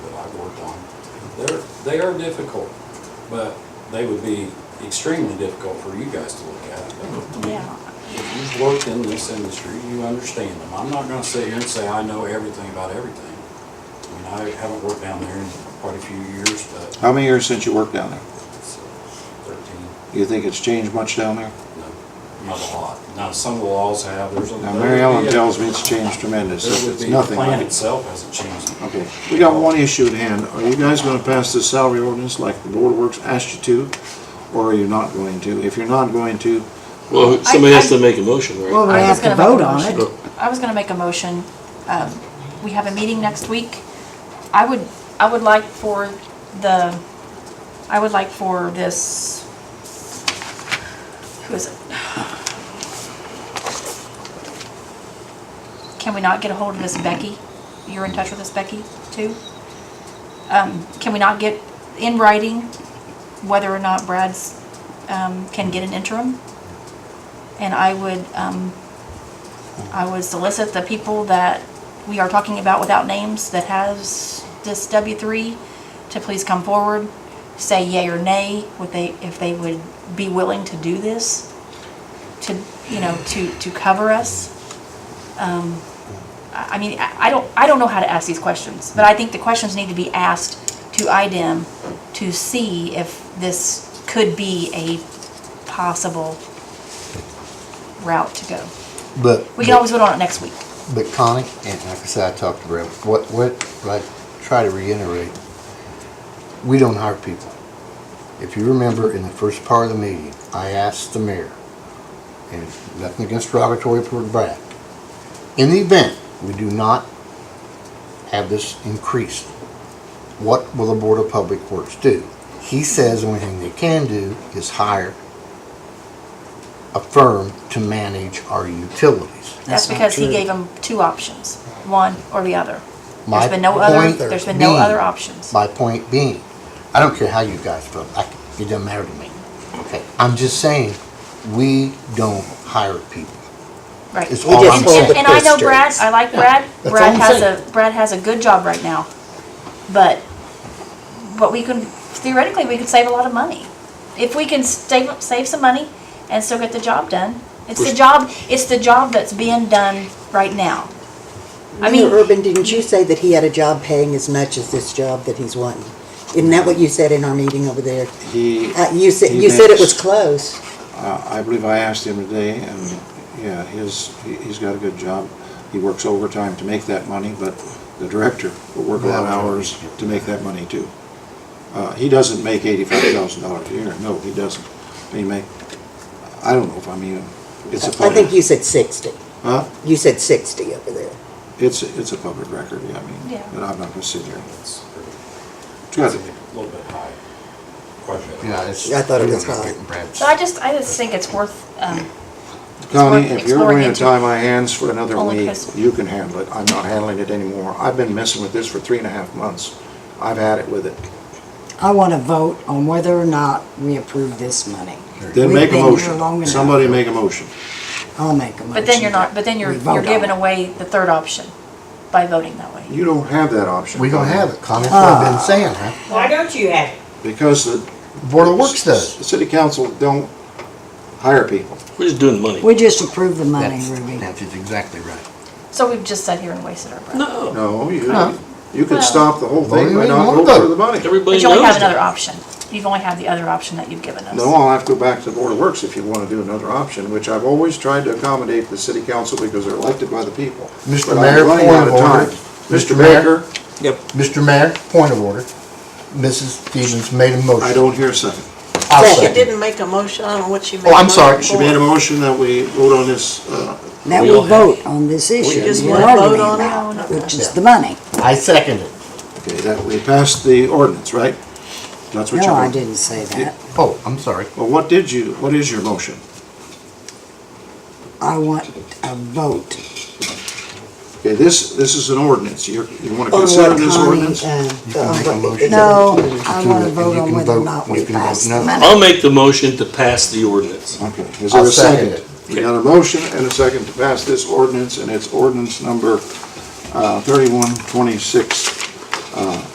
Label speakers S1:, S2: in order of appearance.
S1: They're, they are difficult, but they would be extremely difficult for you guys to look at.
S2: Oh, Yeah.
S1: If you've worked in this industry, you understand them. I'm not gonna sit here and say I know everything about everything. I mean, I haven't worked down there in quite a few years, but
S3: How many years since you worked down there?
S1: it's uh, thirteen,
S3: You think it's changed much down there?
S1: no, not a lot. Now, some of the laws have, there's a.
S3: Now, Mary Ellen tells me it's changed tremendous.
S1: There would
S3: It's
S1: be, the
S3: nothing
S1: plan
S3: like it.
S1: itself hasn't changed.
S3: Okay, we got one issue at hand. Are you guys gonna pass this salary ordinance like the Board of Works asked you to? Or are you not going to? If you're not going to,
S4: Well, somebody has to make a motion,
S5: Well,
S4: right?
S5: they
S2: I was gonna
S5: have to
S2: make
S5: vote
S2: a
S5: on
S2: motion.
S5: it.
S2: I was gonna make a motion, um, we have a meeting next week. I would, I would like for the, I would like for this, who is it? Can we not get a hold of this Becky? You're in touch with this Becky too? Um, can we not get in writing whether or not Brad's, um, can get an interim? And I would, um, I would solicit the people that we are talking about without names that has this W three to please come forward, say yea or nay, would they, if they would be willing to do this, to, you know, to, to cover us. Um, I, I mean, I I don't, I don't know how to ask these questions, but I think the questions need to be asked to IDEM to see if this could be a possible route to go.
S6: But,
S2: We can always vote on it next week.
S6: but Connie, and like I said, I talked to Brad, what, what, I try to reiterate, we don't hire people. If you remember in the first part of the meeting, I asked the mayor, and nothing against derogatory toward Brad, in the event we do not have this increased, what will the Board of Public Works do? He says the only thing they can do is hire a firm to manage our utilities.
S2: That's
S5: not
S2: because he
S5: true.
S2: gave them two options, one or the other.
S6: My
S2: There's been no other,
S6: point
S2: there's been no
S6: being-
S2: other options.
S6: My point being, I don't care how you guys vote, I, it doesn't matter to me. Okay, I'm just saying, we don't hire people.
S2: Right.
S6: It's
S5: We
S6: all
S5: just
S6: I'm
S5: hold
S6: saying.
S5: the
S2: And I know
S5: pistons.
S2: Brad, I like Brad.
S6: that's
S2: Brad
S6: all I'm
S2: has
S6: saying.
S2: a, Brad has a good job right now. But, but we can, theoretically, we could save a lot of money. If we can save, save some money and still get the job done. It's the
S4: Push-
S2: job, it's the job that's being done right now. I
S5: Mayor
S2: mean-
S5: Urban, didn't you say that he had a job paying as much as this job that he's wanting? Isn't that what you said in our meeting over there?
S3: he.
S5: Uh, you said,
S3: he
S5: you said it was
S3: thinks-
S5: close.
S3: Uh, I believe I asked him today, and, yeah, his, he- he's got a good job. He works overtime to make that money, but the director will work a lot of hours to make that money too. Uh, he doesn't make eighty-five thousand dollars a year, no, he doesn't. He make, I don't know if I'm even, it's a
S5: I think you
S3: public,
S5: said sixty.
S3: huh?
S5: You said sixty over there.
S3: It's, it's a public record, yeah, I mean,
S2: Yeah.
S3: but I'm not gonna sit there.
S1: It's pretty-
S3: It's
S1: it's
S3: got
S1: a
S3: to be.
S1: little bit high, quite a bit.
S6: Yeah, it's.
S5: I thought it
S6: we're
S5: was
S6: not
S5: high.
S6: getting Brad's-
S2: So I just, I just think it's worth, um,
S3: Connie, if you're
S2: Exploring
S3: going to
S2: into-
S3: tie my hands for another
S2: Only
S3: week,
S2: because-
S3: you can handle it. I'm not handling it anymore. I've been messing with this for three and a half months. I've had it with it.
S5: I want to vote on whether or not we approve this money.
S3: Then
S5: We've
S3: make a
S5: been here long
S3: motion.
S5: enough.
S3: Somebody make a motion.
S5: I'll make a motion.
S2: But then you're not, but then you're,
S5: We vote
S2: you're giving
S5: on it.
S2: away the third option by voting that way.
S3: You don't have that option.
S6: We don't
S3: Connie,
S6: have it, Connie, that's what
S7: Ah.
S6: I've been saying, huh?
S8: Why don't you have it?
S3: Because the
S6: Board of Works does.
S3: the city council don't hire people.
S4: We're just doing the money.
S7: We just approve the money,
S6: That's-
S7: Ruby.
S6: That is exactly right.
S2: So we've just sat here and wasted our breath.
S5: Oh.
S4: No,
S3: No, you,
S6: No.
S3: you could
S2: Well-
S3: stop the whole
S6: Well,
S3: thing
S6: you
S3: by
S6: ain't
S3: not
S6: one of
S3: voting for
S6: them.
S3: the money.
S4: everybody
S2: But
S4: knows
S2: you only have another
S4: that.
S2: option. You've only had the other option that you've given us.
S3: No, I'll have to go back to the Board of Works if you want to do another option, which I've always tried to accommodate the city council because they're elected by the people.
S6: Mr.
S3: But I'm
S6: Mayor,
S3: running
S6: point
S3: out
S6: of
S3: of time.
S6: order.
S3: Mr.
S6: Mr. Mayor?
S3: Baker?
S6: Mr. Mayor, point of order. Mrs. Stevens made a motion.
S3: I don't hear a second.
S6: I'll
S9: She
S6: second.
S9: didn't make a motion, I don't know what she made.
S6: Oh,
S9: a
S6: I'm sorry.
S9: motion
S3: She made a
S9: for.
S3: motion that we vote on this, uh,
S7: Now
S4: We
S7: we
S4: all have-
S7: vote on this issue.
S9: just
S7: we're
S9: wanna vote
S7: arguing
S9: on it?
S7: about, Which is
S6: Yeah.
S7: the money.
S6: I second it.
S3: okay, that we passed the ordinance, right? That's what you're...
S7: No, I didn't say that.
S6: Oh, I'm sorry.
S3: Well, what did you, what is your motion?
S7: I want a vote.
S3: Okay, this, this is an ordinance. You, you want to
S5: On
S3: consider
S5: what
S3: this
S5: Oh, Connie,
S3: ordinance?
S5: uh,
S6: You can
S5: uh,
S6: make a motion.
S7: No,
S6: You can
S7: I
S6: do
S7: wanna
S6: it, and
S7: vote
S6: you
S7: on
S6: can
S7: whether or
S6: vote,
S7: not
S6: you
S7: we
S6: can vote
S7: pass the
S6: no.
S7: money.
S4: I'll make the motion to pass the ordinance.
S3: Okay, is there
S6: I'll
S3: a
S6: second
S3: second? We got a motion and a second to pass this ordinance, and it's ordinance number uh, 3126.